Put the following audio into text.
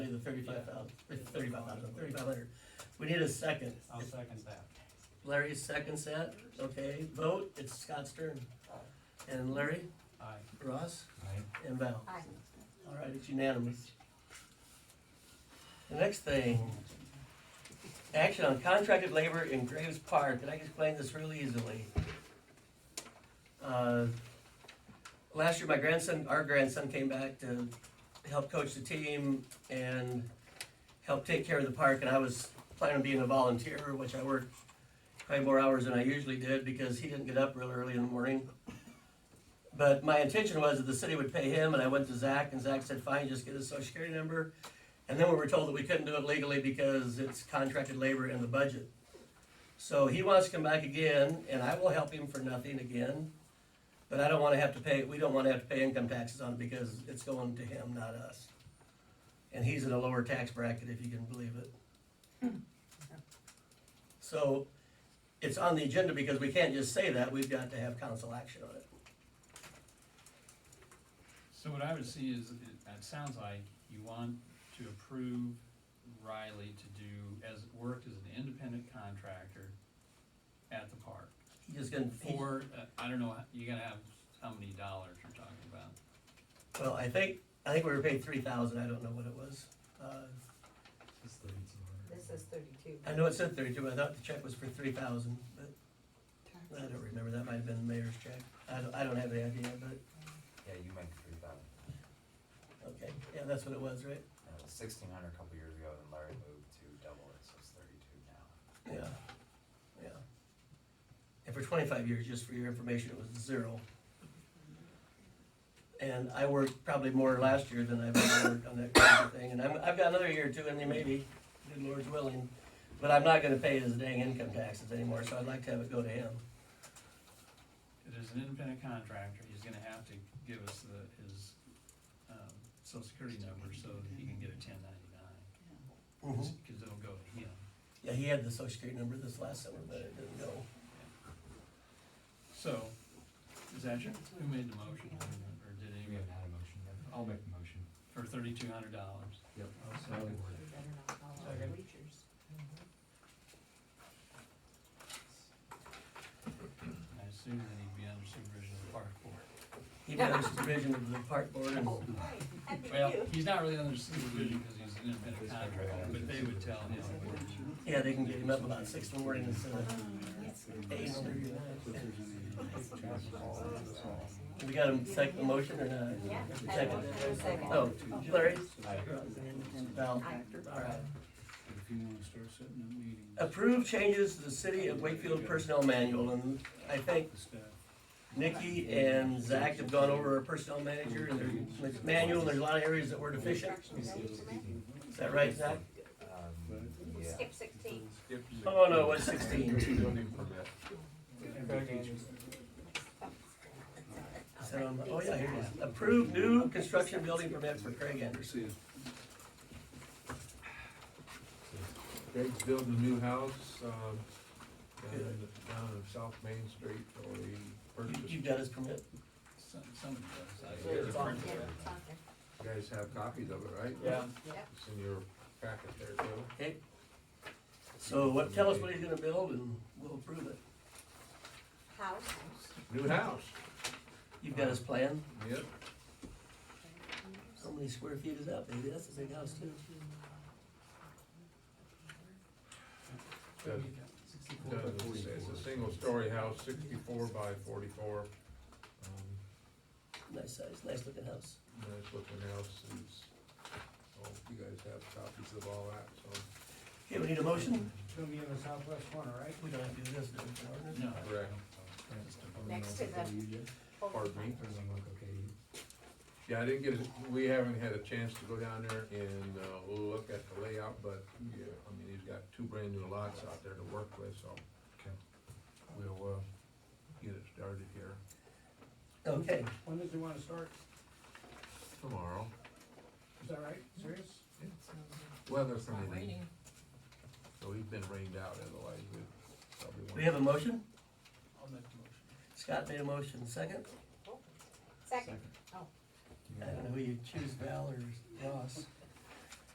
thirty-five thousand, thirty-five thousand, thirty-five hundred. We need a second. I'll second that. Larry seconds that, okay, vote, it's Scott's turn. And Larry, Aye. Ross, Aye. and Val. Aye. All right, it's unanimous. The next thing, action on contracted labor in Graves Park, and I can explain this really easily. Uh, Last year, my grandson, our grandson came back to help coach the team and help take care of the park, and I was planning on being a volunteer, which I worked probably more hours than I usually did, because he didn't get up real early in the morning. But my intention was that the city would pay him, and I went to Zach, and Zach said, fine, just get his social security number. And then we were told that we couldn't do it legally because it's contracted labor in the budget. So he wants to come back again, and I will help him for nothing again. But I don't wanna have to pay, we don't wanna have to pay income taxes on it because it's going to him, not us. And he's in a lower tax bracket, if you can believe it. So, it's on the agenda because we can't just say that, we've got to have council action on it. So what I would see is, it, it sounds like you want to approve Riley to do, as, work as an independent contractor at the park. He just gonna, he- For, uh, I don't know, you gotta have how many dollars you're talking about. well, I think, I think we were paid three thousand, I don't know what it was. Uh, This is thirty-two. I know it said thirty-two, but I thought the check was for three thousand, but I don't remember, that might have been the mayor's check. I don't, I don't have any idea, but, Yeah, you meant three thousand. okay, yeah, that's what it was, right? And it was sixteen hundred a couple years ago, then Larry moved to double it, so it's thirty-two now. Yeah, yeah. And for twenty-five years, just for your information, it was zero. And I worked probably more last year than I've ever worked on that kind of thing, and I'm, I've got another year or two in me maybe, good Lord's willing. But I'm not gonna pay his dang income taxes anymore, so I'd like to have it go to him. It is an independent contractor, he's gonna have to give us the, his, um, social security number so that he can get a ten ninety-nine. Mm-hmm. Cause 'cause it'll go to him. Yeah, he had the social security number this last summer, but it didn't go. So, is that your, who made the motion, or did We anyone, haven't had a motion yet. I'll make the motion. for thirty-two hundred dollars? Oh, Yep. I assume that he'd be under supervision of the park board. He did have supervision of the park board and, Well, he's not really under supervision because he's an independent contractor, but they would tell him. yeah, they can get him up about six in the morning instead of eight. in the morning. We got him second the motion uh, or not? Yeah. Second. Second. Oh, Larry? Val? Aye. Alright. If you wanna start setting up meetings, Approve changes to the City of Wakefield Personnel Manual, and I think the staff. Nikki and Zach have gone over our personnel manager and their their manual, and there's a lot of areas that were deficient. Is that right, Zach? Um, yeah. Skip sixteen. Oh, no, it was sixteen. So, um, Oh, yeah, here it is. Approve new construction building permit for Craig Anderson. Greg's building a new house, um, down in, down in South Main Street, or he You- purchased. You've got his permit? Some, some of Yeah, those. it's Yeah, on. it's on there. You guys have copies of it, right? Yeah. It's in your packet there, too. Okay. So what, tell us what he's gonna build and we'll approve it. House. New house, You've got his plan? yep. How many square feet is that, baby? That's a big house too. Does- does- It's it's a single-story house, sixty-four by forty-four. Um, Nice size, nice looking house. Nice looking house, it's, oh, you guys have copies of all that, so. Okay, we need a motion? It'll be in the southwest corner, right? We don't have to do this, do we? No. Correct. Next to the- Pardon me? Everything look okay? Yeah, I didn't get, a- we haven't had a chance to go down there and, uh, look at the layout, but, yeah, I mean, he's got two brand new lots out there to work with, so. Okay. We'll, uh, get it started here Okay, When does he wanna start? tomorrow. Is that right? Serious? Weather permitting. So he's been rained out, otherwise we probably do won't. we have a motion? I'll make the motion. Scott made a motion, second? Second. I don't know who you choose, Val or Ross.